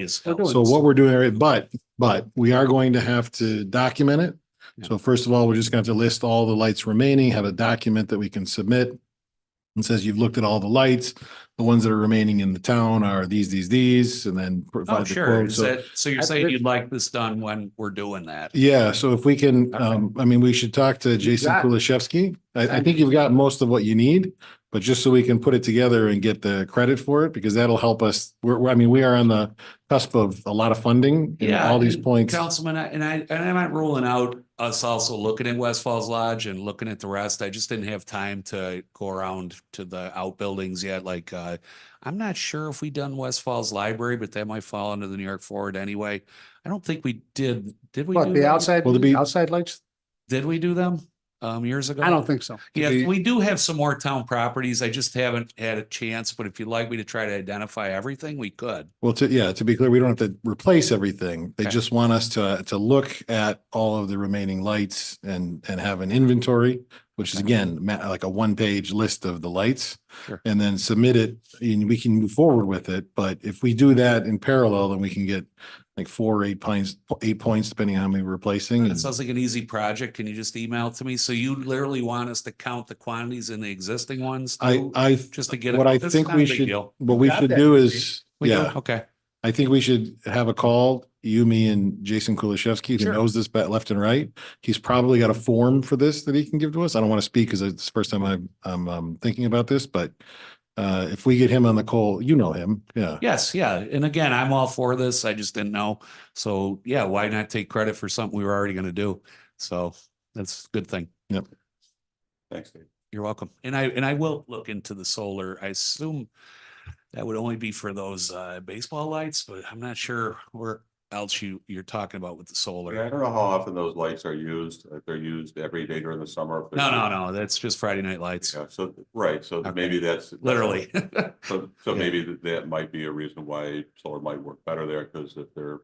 is. We're doing So this. what we're doing, right, but, but we are going to have to document it. So first of all, we're just going to list all the lights remaining, have a document that we can submit. And says you've looked at all the lights, the ones that are remaining in the town are these, these, these, and then. provide Oh, the sure. quote. Is So- that, so you're I- saying you'd like this done when we're doing that? Yeah, so if we can, Okay. um, I mean, we should talk to Jason got- Kulishevsky. I, I think you've got most of what you need. But just so we can put it together and get the credit for it, because that'll help us. We're, we're- I mean, we are on the cusp of a lot of funding and Yeah, all these and points. Councilman, I- and I, and I'm not ruling out us also looking at West Falls Lodge and looking at the rest. I just didn't have time to go around to the outbuildings yet. Like, uh, I'm not sure if we done West Falls Library, but that might fall under the New York Forward anyway. I don't think we did. Did we? do What, the them? outside, Will there be- outside lights? Did we do them, um, years ago? I don't think so. Yeah, The- we do have some more town properties. I just haven't had a chance, but if you'd like me to try to identify everything, we could. Well, to, yeah, to be clear, we don't have to replace everything. They Okay. just want us to, to look at all of the remaining lights and, and have an inventory, which is Okay. again, ma- like a one-page list of the lights. Sure. And then submit it and we can move forward with it. But if we do that in parallel, then we can get like four, or eight points, eight points, depending on how many we're replacing. That and- sounds like an easy project. Can you just email it to me? So you literally want us to count the quantities in the existing ones? I, too, I, Just to get. it- what I this is think not a we big should- deal. what we got should that, do right? is, We do? yeah. Okay, I think we should have a call, you, me and Jason Kulishevsky, who Sure. knows this bet left and right. He's probably got a form for this that he can give to us. I don't want to speak because it's the first time I'm, I'm, um, thinking about this, but uh, if we get him on the call, you know him, yeah. yes, yeah. And again, I'm all for this. I just didn't know. So yeah, why not take credit for something we were already going to do? So that's a good thing. Thanks, Dave. You're welcome. And I, and I will look into the solar. I assume that would only be for those uh baseball lights, but I'm not sure where else you, you're talking about with the Yeah, I solar. don't know how often those lights are used, if they're used every day during the summer. if they're No, no, no, used- that's just Friday night lights, Yeah, so, right, so Okay. maybe that's. literally. So, so Yeah. maybe that, that might be a reason why solar might work better there, because if they're.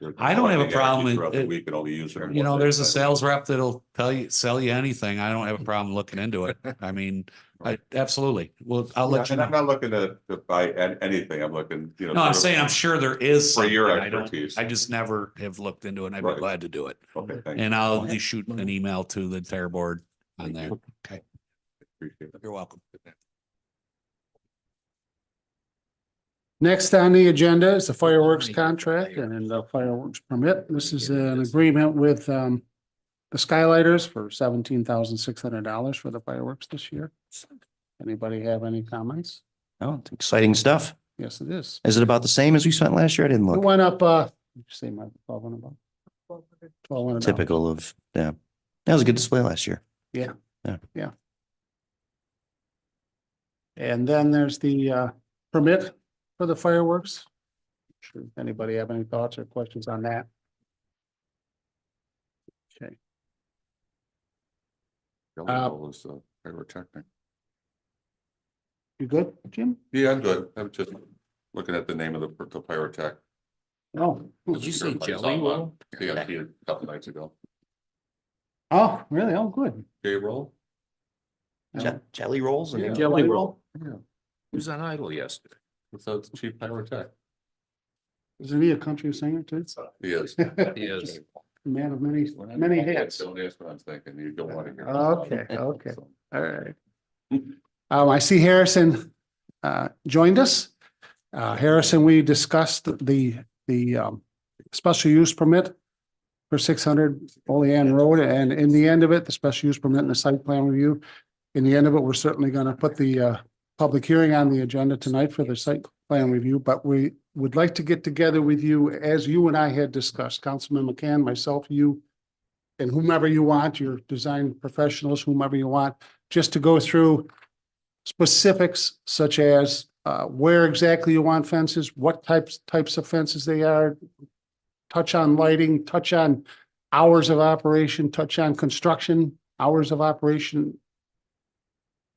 they're I don't have a collecting energy problem with Throughout the it. week and only use them. You one know, day, there's a but- sales rep that'll tell you, sell you anything. I don't have a problem looking into it. I mean, I, absolutely. Well, I'll Yeah, let you And I'm know. not looking to, to buy an- anything, I'm looking, you know. No, I'm sort saying of- I'm sure there is. For your something. I don't- expertise. I just never have looked into it and I'd be Right. glad to do it. Okay, thank you, And I'll at least shoot an email to the entire board on there. appreciate it. You're welcome. Next on the agenda is the fireworks contract and then the fireworks permit. This is an agreement with um the Skylighters for seventeen thousand six hundred dollars for the fireworks this year. Anybody have any comments? Oh, it's exciting stuff. Yes, it is. Is it about the same as we spent last year? I didn't It look. went up, uh, did you say my twelve hundred bucks? Twelve hundred. Typical of, yeah. That was a good display last year. And then there's the uh permit for the fireworks. Sure, if anybody have any thoughts or questions on that? Okay, Uh, Was the pyrotechnic. you good, Jim? Yeah, I'm good, I'm just looking at the name of the pyr- the pyrotech. No. Did you say Jelly Roll? Yeah, I see it a couple nights ago. Oh, really? Oh, good. J Roll? Je- Jelly rolls and. Jelly roll. Who's on idle yesterday? So it's Chief Pyrotech. Is he a country singer too? He is. A is. Man of many, many hats. Don't ask what I'm thinking. You don't want to hear. Okay, okay. All right. Um, I see Harrison, uh, joined us. Uh, Harrison, we discussed the, the, um, special use permit for six hundred Olean Road, and in the end of it, the special use permit and the site plan review. In the end of it, we're certainly gonna put the, uh, public hearing on the agenda tonight for the site plan review, but we would like to get together with you, as you and I had discussed, Councilman McCann, myself, you, and whomever you want, your design professionals, whomever you want, just to go through specifics such as uh, where exactly you want fences, what types, types of fences they are, touch on lighting, touch on hours of operation, touch on construction, hours of operation.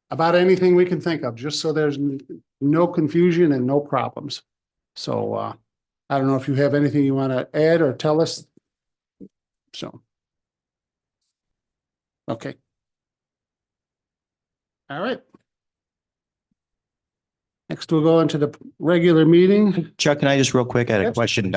About anything we can think of, just so there's n- no confusion and no problems. So uh, I don't know if you have anything you want to add or tell us. So. Okay. All right. Next, we'll go into the regular meeting. Chuck, can I just real quick, I had a Yes. question